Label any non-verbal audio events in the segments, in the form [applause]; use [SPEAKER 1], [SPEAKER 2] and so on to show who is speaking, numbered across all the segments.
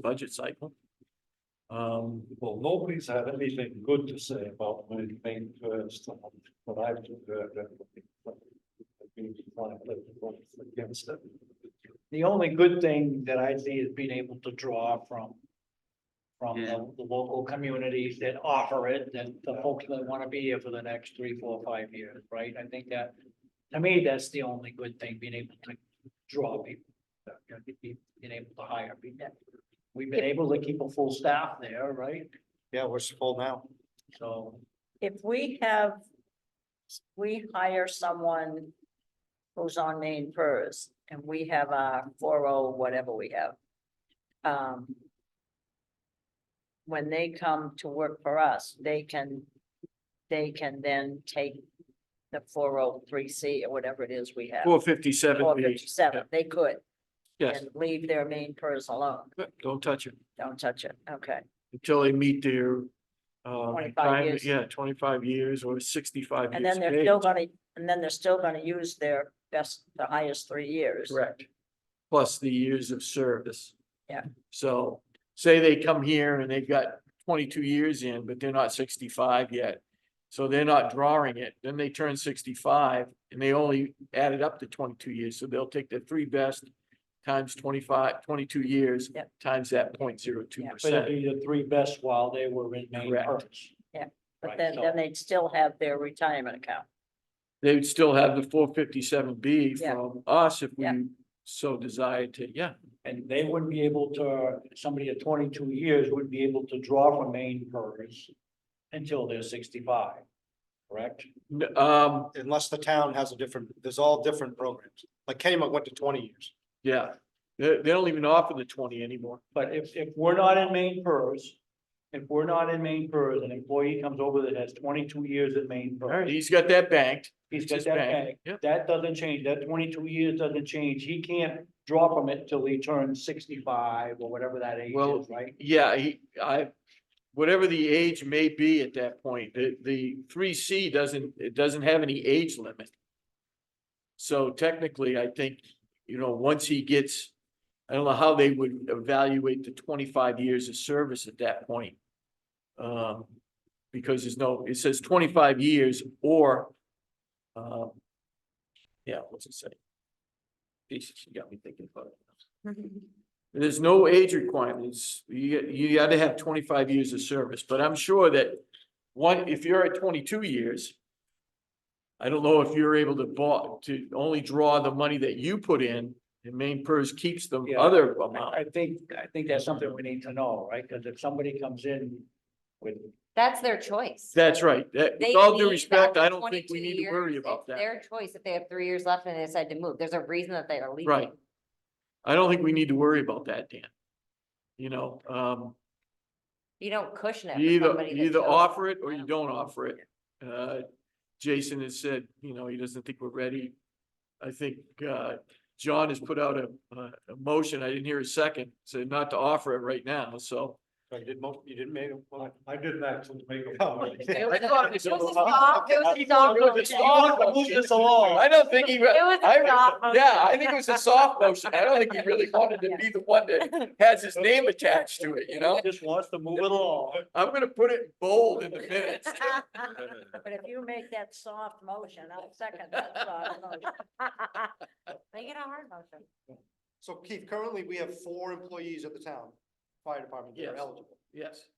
[SPEAKER 1] budget cycle. Um,
[SPEAKER 2] Well, nobody's had anything good to say about my main first, but I've just heard everything. I've been defiantly Against it.
[SPEAKER 3] The only good thing that I see is being able to draw from. From
[SPEAKER 1] Yeah.
[SPEAKER 3] the, the local communities that offer it, that the folks that wanna be here for the next three, four, five years, right? I think that. To me, that's the only good thing, being able to draw people, uh, you know, be- be- being able to hire people. We've been able to keep a full staff there, right?
[SPEAKER 2] Yeah, we're full now.
[SPEAKER 3] So,
[SPEAKER 4] if we have, we hire someone who's on main purse and we have our four oh, whatever we have. Um. When they come to work for us, they can, they can then take the four oh three C or whatever it is we have.
[SPEAKER 1] four oh fifty-seven,
[SPEAKER 4] Four fifty-seven, they could,
[SPEAKER 1] yes,
[SPEAKER 4] and leave their main purse alone,
[SPEAKER 1] don't touch it
[SPEAKER 4] don't touch it, okay.
[SPEAKER 1] until they meet their. Uh,
[SPEAKER 4] 25
[SPEAKER 1] retirement-
[SPEAKER 4] years.
[SPEAKER 1] yeah, twenty-five years or sixty-five
[SPEAKER 4] And
[SPEAKER 1] years.
[SPEAKER 4] then they're
[SPEAKER 1] of
[SPEAKER 4] still
[SPEAKER 1] age.
[SPEAKER 4] gonna, and then they're still gonna use their best, the highest three years.
[SPEAKER 1] Correct. Plus the years of service.
[SPEAKER 4] Yeah.
[SPEAKER 1] So say they come here and they've got twenty-two years in, but they're not sixty-five yet. So they're not drawing it. Then they turn sixty-five and they only added up to twenty-two years. So they'll take the three best times 25, 22 years.
[SPEAKER 4] Yep.
[SPEAKER 1] Times that point zero two
[SPEAKER 4] Yeah,
[SPEAKER 3] but it'd
[SPEAKER 1] percent.
[SPEAKER 3] be the three best while they were in main
[SPEAKER 1] Correct.
[SPEAKER 3] purpose.
[SPEAKER 4] But
[SPEAKER 3] Right,
[SPEAKER 4] then,
[SPEAKER 3] so-
[SPEAKER 4] then they'd still have their retirement account.
[SPEAKER 1] They would still have the four fifty-seven B
[SPEAKER 4] Yeah.
[SPEAKER 1] from us if we
[SPEAKER 4] Yeah.
[SPEAKER 1] so desired to, yeah.
[SPEAKER 3] And they wouldn't be able to, somebody at twenty-two years wouldn't be able to draw from main purse until they're sixty-five, correct?
[SPEAKER 1] N- Um,
[SPEAKER 5] unless the town has a different, there's all different programs. Like Kennybunk went to twenty years.
[SPEAKER 1] yeah. They, they don't even offer the twenty anymore.
[SPEAKER 3] But if, if we're not in main purse, if we're not in main purse, an employee comes over that has twenty-two years in main
[SPEAKER 1] All right,
[SPEAKER 3] purse.
[SPEAKER 1] he's got that banked.
[SPEAKER 3] He's
[SPEAKER 1] It's
[SPEAKER 3] got
[SPEAKER 1] his
[SPEAKER 3] that
[SPEAKER 1] bank.
[SPEAKER 3] bank.
[SPEAKER 1] Yep.
[SPEAKER 3] That doesn't change, that twenty-two years doesn't change, he can't draw from it till he turns sixty-five or whatever that age
[SPEAKER 1] Well,
[SPEAKER 3] is, right?
[SPEAKER 1] Yeah, he, I, whatever the age may be at that point, the, the three C doesn't, it doesn't have any age limit. So technically, I think, you know, once he gets, I don't know how they would evaluate the twenty-five years of service at that point. Um, because there's no, it says twenty-five years or, um, yeah, what's it say? Jesus, you got me thinking about it. There's no age requirements. You, you gotta have twenty-five years of service, but I'm sure that one, if you're at twenty-two years, I don't know if you're able to borrow, to only draw the money that you put in and main purse keeps the
[SPEAKER 3] Yeah.
[SPEAKER 1] other
[SPEAKER 3] I,
[SPEAKER 1] amount.
[SPEAKER 3] I think, I think that's something we need to know, right? Cause if somebody comes in with
[SPEAKER 6] That's their choice.
[SPEAKER 1] That's right. That,
[SPEAKER 6] They
[SPEAKER 1] with all due
[SPEAKER 6] leave
[SPEAKER 1] respect,
[SPEAKER 6] after
[SPEAKER 1] I don't think we
[SPEAKER 6] 22
[SPEAKER 1] need to worry
[SPEAKER 6] years.
[SPEAKER 1] about
[SPEAKER 6] It's
[SPEAKER 1] that.
[SPEAKER 6] Their choice if they have three years left and they decide to move. There's a reason that they are leaving.
[SPEAKER 1] Right. I don't think we need to worry about that, Dan. You know, um,
[SPEAKER 6] You don't cushion it. for
[SPEAKER 1] You either,
[SPEAKER 6] somebody that
[SPEAKER 1] you either
[SPEAKER 6] chose-
[SPEAKER 1] offer it or
[SPEAKER 6] I
[SPEAKER 1] you
[SPEAKER 6] don't-
[SPEAKER 1] don't offer it. Uh, Jason has said, you know, he doesn't think we're ready. I think, uh, John has put out a, a, a motion. I didn't hear a second, said not to offer it right now, so.
[SPEAKER 5] So you did most, you didn't make, well,
[SPEAKER 2] I didn't actually make a
[SPEAKER 5] Oh,
[SPEAKER 3] [laughs]
[SPEAKER 2] comment.
[SPEAKER 6] [laughs] It was a-
[SPEAKER 1] thought
[SPEAKER 6] it
[SPEAKER 1] it
[SPEAKER 6] was
[SPEAKER 1] was
[SPEAKER 6] a
[SPEAKER 1] a-
[SPEAKER 6] soft- it was a soft motion.
[SPEAKER 3] move this along.
[SPEAKER 1] I don't think he, re-
[SPEAKER 6] It was a
[SPEAKER 1] I-
[SPEAKER 6] soft motion.
[SPEAKER 1] yeah, I think it was a soft
[SPEAKER 6] [laughs]
[SPEAKER 1] motion. I don't think he really wanted to be the one that has his name attached to it, you know?
[SPEAKER 3] Just wants to move it along.
[SPEAKER 1] I'm gonna put it bold in the minutes.
[SPEAKER 4] But if you make that soft motion, I'll second that soft
[SPEAKER 6] [laughs]
[SPEAKER 4] motion.
[SPEAKER 6] Make it a hard motion.
[SPEAKER 5] so Keith, currently we have four employees at the town, fire department that are
[SPEAKER 1] Yes.
[SPEAKER 5] eligible.
[SPEAKER 1] Yes,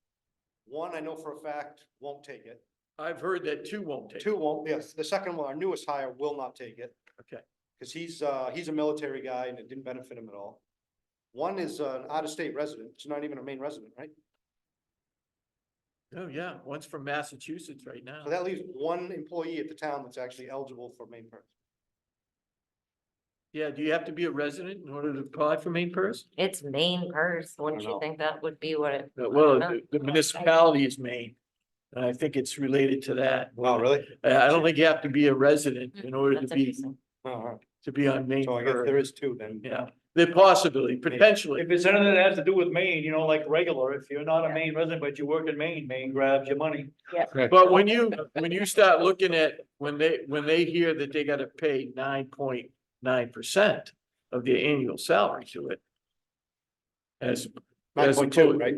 [SPEAKER 5] One, I know for a fact, won't take it.
[SPEAKER 1] I've heard that two won't take. it.
[SPEAKER 5] Two won't, yes, the second one, our newest hire, will not take it.
[SPEAKER 1] Okay.
[SPEAKER 5] Cause he's, uh, he's a military guy and it didn't benefit him at all. One is an out-of-state resident, it's not even a main resident, right?
[SPEAKER 1] Oh, yeah, one's from Massachusetts right now.
[SPEAKER 5] So that leaves one employee at the town that's actually eligible for main perks.
[SPEAKER 1] Yeah, do you have to be a resident in order to apply for main purse?
[SPEAKER 6] It's main purse. Wouldn't
[SPEAKER 5] I
[SPEAKER 6] you
[SPEAKER 5] know.
[SPEAKER 6] think that would be what it?
[SPEAKER 1] Uh, Well,
[SPEAKER 6] know.
[SPEAKER 1] the- the municipality is Maine. And I think it's related to that.
[SPEAKER 5] Oh, really?
[SPEAKER 1] I I don't think you have to be a resident in order to
[SPEAKER 6] Mm, That's
[SPEAKER 1] be,
[SPEAKER 6] interesting.
[SPEAKER 5] Alright,
[SPEAKER 1] to be on main
[SPEAKER 5] so I guess there
[SPEAKER 1] purse.
[SPEAKER 5] is two then.
[SPEAKER 1] Yeah, the possibility, potentially.
[SPEAKER 3] If it's anything that has to do with Maine, you know, like regular, if you're not a Maine resident, but you work in Maine, Maine grabs your money.
[SPEAKER 1] But when you, when you start looking at, when they, when they hear that they gotta pay nine point nine percent of their annual salary to it. As
[SPEAKER 5] Nine
[SPEAKER 1] As
[SPEAKER 5] point two,
[SPEAKER 1] opposed-
[SPEAKER 5] right?